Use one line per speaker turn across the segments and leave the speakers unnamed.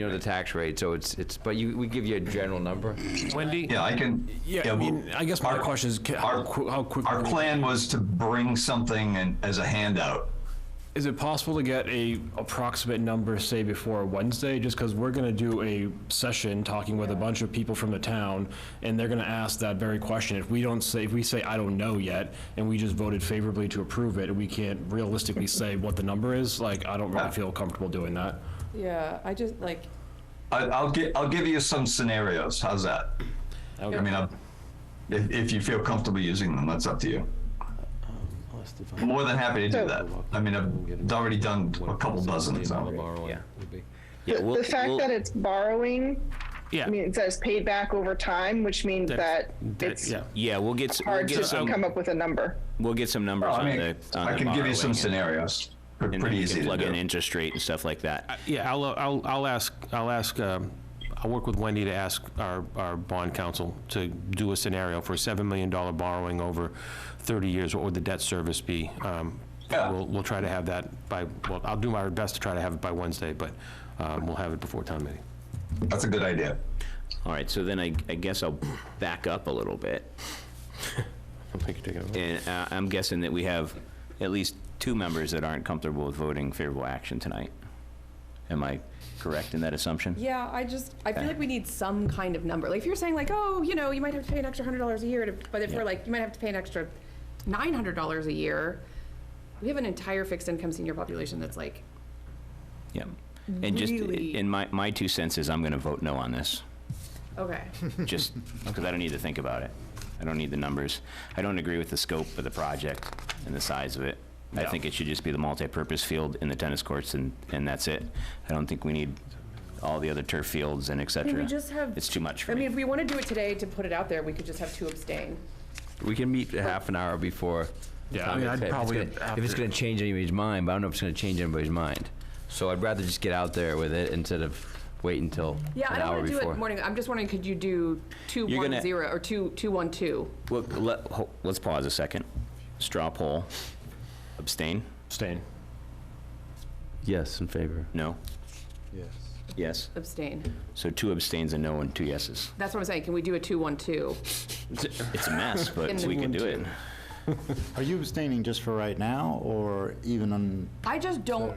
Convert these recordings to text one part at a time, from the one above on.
you know, the tax rate, so it's, it's, but you, we give you a general number.
Wendy?
Yeah, I can.
Yeah, I mean,
well,
I guess my
our-
question is, ca- how
our-
qui- how quickly?
Our plan was to bring something in- as a handout.
Is it possible to get a approximate number, say, before Wednesday? Just because we're going to do a session talking with a bunch of people from the town, and they're going to ask that very question. If we don't say, if we say, I don't know yet, and we just voted favorably to approve it, and we can't realistically say what the number is, like, I don't really feel comfortable doing that.
Yeah, I just like,
I, I'll gi- I'll give you some scenarios. How's that? I mean, I'll, if, if you feel comfortable using them, that's up to you.
Um,
I'm more than happy to do that. I mean, I've already done a couple dozen, so.
Yeah.
The-
we'll-
The fact
we'll-
that it's borrowing
Yeah,
means that it's paid back over time, which means that
that-
it's
yeah.
Yeah, we'll get, s- we'll
hard
get
to
some,
come up with a number.
we'll get some numbers
I
on
mean,
the,
I
on the
can give you some
borrowing and-
scenarios. They're
and then
Pretty
we can
easy to
Plug in
do.
interest rate and stuff like that.
Yeah, I'll, uh, I'll, I'll ask, I'll ask, um, I'll work with Wendy to ask our, our bond counsel to do a scenario for a $7 million borrowing over 30 years, what would the debt service be? Um,
Yeah.
We'll, we'll try to have that by, well, I'll do my best to try to have it by Wednesday, but um, we'll have it before town meeting.
That's a good idea.
All right, so then I, I guess I'll back up a little bit.
I think you take it over.
And uh, I'm guessing that we have at least two members that aren't comfortable with voting favorable action tonight. Am I correct in that assumption?
yeah, I just, I feel like we need some kind of number. Like if you're saying like, oh, you know, you might have to pay an extra hundred dollars a year, to- but if we're like, you might have to pay an extra nine hundred dollars a year, we have an entire fixed income senior population that's like,
Yep. And just,
Really?
in my, my two cents is I'm going to vote no on this.
okay,
just because I don't need to think about it. I don't need the numbers. I don't agree with the scope of the project and the size of it. I think it should just be the multi-purpose field and the tennis courts and, and that's it. I don't think we need all the other turf fields and et cetera.
Can we just have-
It's too much for
I mean,
me.
if we want to do it today to put it out there, we could just have two abstain.
We can meet a half an hour before.
Yeah, I
Tom
mean,
gets
I'd
paid. If it's
probably
gonna-
have
If it's
to-
gonna change anybody's mind, but I don't know if it's gonna change anybody's mind. So I'd rather just get out there with it instead of wait until an
Yeah, I don't
hour
want to do
before.
it morning, I'm just wondering, could you do two
You're
one
gonna-
zero or two, two one two?
Well, let, ho- let's pause a second. Straw poll. Abstain?
Abstain.
Yes, in favor.
No? Yes. Yes.
Abstain.
So two abstains and no and two yeses.
That's what I'm saying, can we do a two one two?
It's a mess, but
In the-
we can do it.
Are you abstaining just for right now, or even on?
I just don't,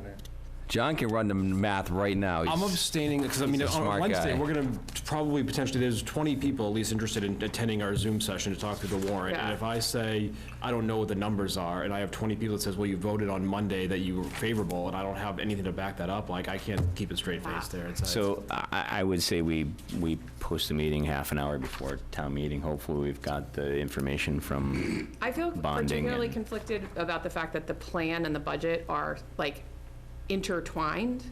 John can run the math right now.
I'm
He's-
abstaining because I mean,
He's a
on
smart
Wednesday,
guy.
we're gonna probably potentially, there's 20 people at least interested in attending our Zoom session to talk through the warrant. And
Yeah.
if I say, I don't know what the numbers are, and I have 20 people that says, well, you voted on Monday that you were favorable, and I don't have anything to back that up, like, I can't keep a straight face there. It's, uh,
So I, I would say we, we post the meeting half an hour before town meeting. Hopefully, we've got the information from,
I feel
Bonding
particularly
and-
conflicted about the fact that the plan and the budget are like intertwined.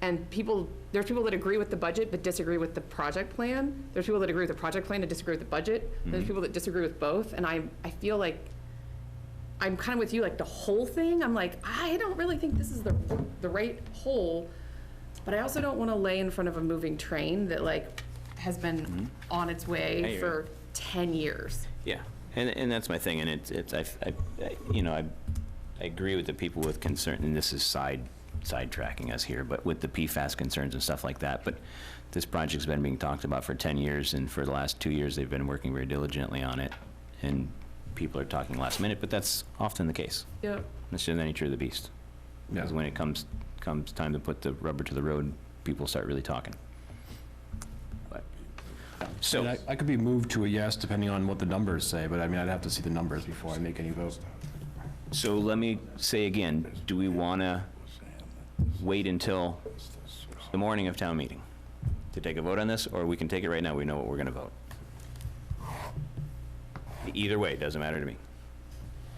And people, there's people that agree with the budget but disagree with the project plan. There's people that agree with the project plan and disagree with the budget.
Mm-hmm.
There's people that disagree with both, and I, I feel like, I'm kind of with you, like the whole thing, I'm like, I don't really think this is the, the right whole. But I also don't want to lay in front of a moving train that like has been on its
Mm-hmm. I hear
way
you.
for ten years.
yeah. And, and that's my thing, and it's, it's, I, I- you know, I, I agree with the people with concern, and this is side, sidetracking us here, but with the PFAS concerns and stuff like that. But this project's been being talked about for 10 years, and for the last two years, they've been working very diligently on it. And people are talking last minute, but that's often the case.
Yep.
That's just the nature of the beast. Because when it comes, comes time to put the rubber to the road, people start really talking. But-
I mean,
So,
I I could be moved to a yes depending on what the numbers say, but I mean, I'd have to see the numbers before I make any vote.
so let me say again, do we want to wait until the morning of town meeting to take a vote on this? Or we can take it right now, we know what we're going to vote. Either way, it doesn't matter to me.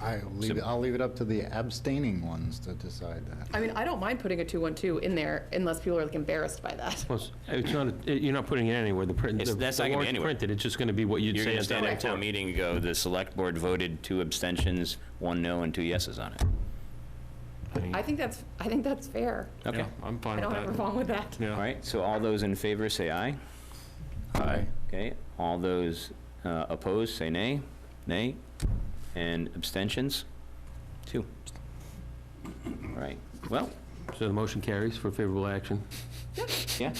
I leave, it- I'll leave it up to the abstaining ones to decide that.
I mean, I don't mind putting a two-one-two in there unless people are like embarrassed by that.
Well, it's- It's not, it- you're not putting it anywhere, the print,
It's-
the
that's
the
not gonna be
warrant's
anywhere.
printed, it's just going to be what you'd
You're going
say
to
at town
stand at town
meeting.
meeting and go, the select board voted two abstentions, one no and two yeses on it.
I think that's, I think that's fair.
Okay.
Yeah, I'm fine
I
with that.
don't have a problem with that.
Yeah.
All right, so all those in favor say aye. Aye. Okay, all those uh, opposed say nay, nay, and abstentions? Two. All right, well,
So the motion carries for favorable action.
Yeah?